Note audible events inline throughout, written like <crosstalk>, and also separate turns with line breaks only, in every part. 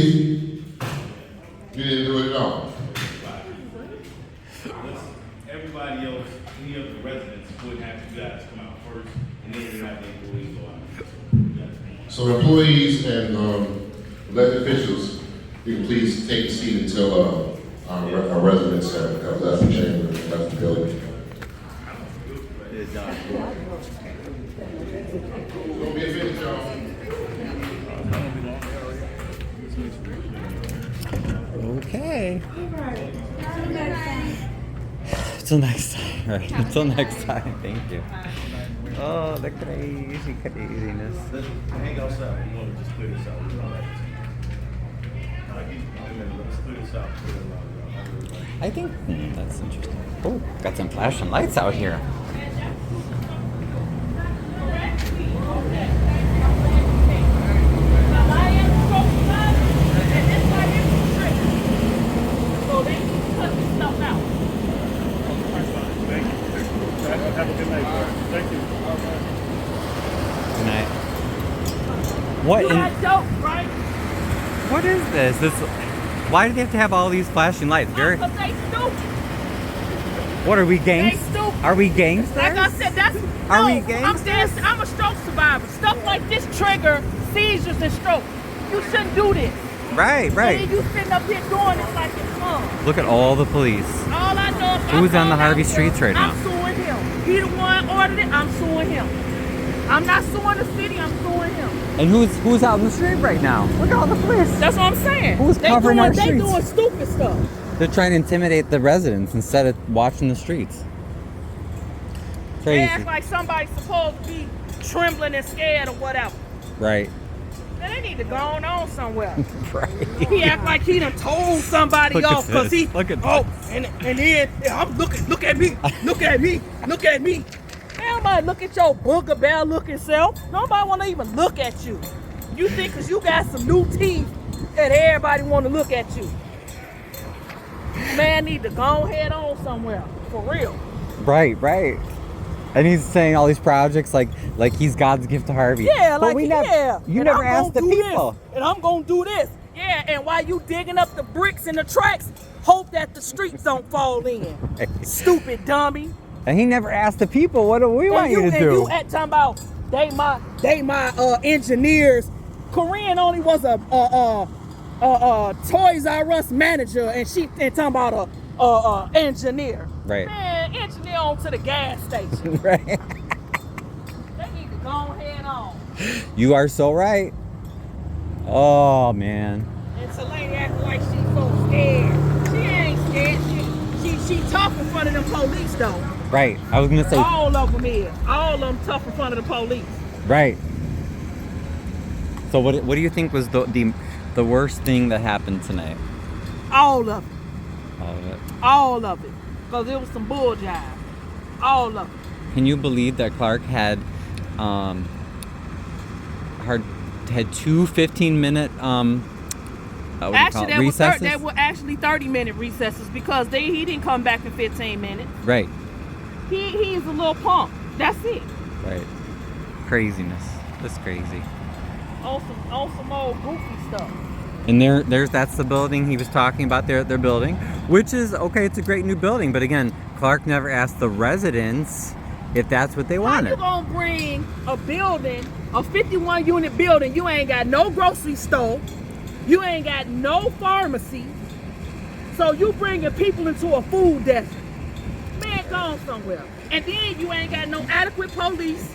Chief, you didn't do it at all.
Everybody else, any of the residents would have you guys come out first, and then you have the employees go out.
So employees and um, elected officials, you can please take a seat until uh, our re- our residents have have left the chamber and left the building. Don't be offended, y'all.
Okay. Till next time. Right. Until next time. Thank you. Oh, the crazy craziness.
Let's hang outside, we wanna just clear this out. We don't like this. Like, you- I mean, let's clear this out, clear it out, everybody.
I think hmm, that's interesting. Oh, got some flashing lights out here.
So they can cut this stuff out.
Good night. What?
You
In,
got dope, right?
what is this? This. Why do they have to have all these flashing lights? Very.
Because they stupid.
What are we
They
gangs?
stupid.
Are we gangs?
Like I said, that's
Are
no,
we
I'm
gangsters?
saying I'm a stroke survivor. Stuff like this trigger seizures and stroke. You shouldn't do this.
Right,
And
right.
then you sitting up here doing it like it's fun.
Look at all the police.
All I know is
Who's on
I'm
the
calling
Harvey
out to
streets
him.
right now?
I'm suing him. He the one ordered it. I'm suing him. I'm not suing the city. I'm suing him.
And who's who's out in the street right now? Look at all the police.
That's what I'm saying.
Who's
they
covering
doing,
our
They
streets?
doing stupid stuff.
They're trying to intimidate the residents instead of watching the streets.
They
Crazy.
act like somebody's supposed to be trembling and scared or whatever. <laughs>
right.
Man, they need to go on, on somewhere.
Right.
He act like he done told somebody
Look at
off because
this.
he
Look at
oh and and then yeah, I'm looking look at me look at me look at me. Nobody look at your booger bell looking self. Nobody want to even look at you. You think because you got some new teeth that everybody want to look at you. Man, need to go head on somewhere for real.
Right, right. And he's saying all these projects like like he's God's gift to Harvey.
Yeah,
But
like
we nev-
yeah.
You
And
never
I'm
asked the
gonna do
people.
This, and I'm gonna do this. Yeah, and while you digging up the bricks and the tracks, hope that the streets don't fall
<laughs>
in. Stupid dummy.
And he never asked the people what do we want
and you,
you to
and
do? <laughs>
you at talking about they my they my uh engineers. Corinne only was a uh uh uh, uh Toys R Us manager and she and talking about a uh, uh engineer.
Right.
Man, engineer on to the gas station.
right.
they need to go ahead on.
You are so right. Oh man.
And so lady acting like she so scared. She ain't scared. She she, she tough in front of them police though.
Right. I was gonna say
All of them is. All of them tough in front of the police.
right. So what what do you think was the the, the worst thing that happened tonight? Uh,
All of it.
All of it.
All of it. Cause it was some bull jive. All of it.
Can you believe that Clark had um, hard, had two 15 minute um, uh, what do you call
Actually,
it?
that was thir-
recesses?
that were actually 30 minute recesses because they he didn't come back in 15 minutes.
right,
He he's a little punk. That's it.
right. Craziness. That's crazy.
On Oh, some on some old goofy stuff.
And there, there's that's the building he was talking about. Their their building, which is okay. It's a great new building, but again, Clark never asked the residents if that's what they
How you
wanted.
gonna bring a building, a 51 unit building? You ain't got no grocery store, you ain't got no pharmacy, so you bringing people into a food desert. Man, gone somewhere. And then you ain't got no adequate police.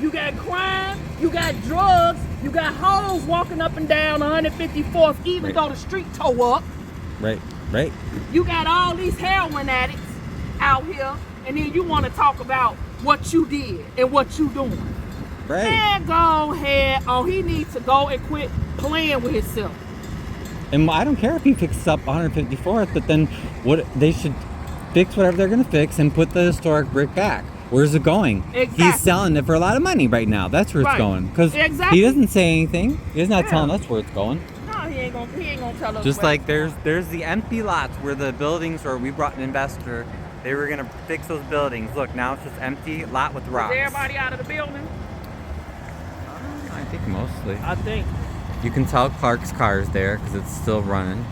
You got crime, you got drugs, you got hoes walking up and down 154th, even
Right.
though the street toe up.
Right, right.
You got all these heroin addicts out here, and then you want to talk about what you did and what you doing.
Right.
Man, go ahead. Oh, he needs to go and quit playing with himself.
And I don't care if he fixes up 154th, but then what they should fix whatever they're gonna fix and put the historic brick back. Where's it going?
Exactly.
He's selling it for a lot of money right now. That's where it's
Right.
going. Because
Exactly.
he doesn't say anything. He's not
Yeah.
telling us where it's going.
No, he ain't gonna. He ain't gonna tell us.
Just
where
like
it's
there's there's the empty lots where the buildings where we brought an investor. They were gonna fix those buildings. Look, now it's just empty lot with
going.
rocks.
Is everybody out of the building?
I think mostly.
I think.
You can tell Clark's car's there because it's still running.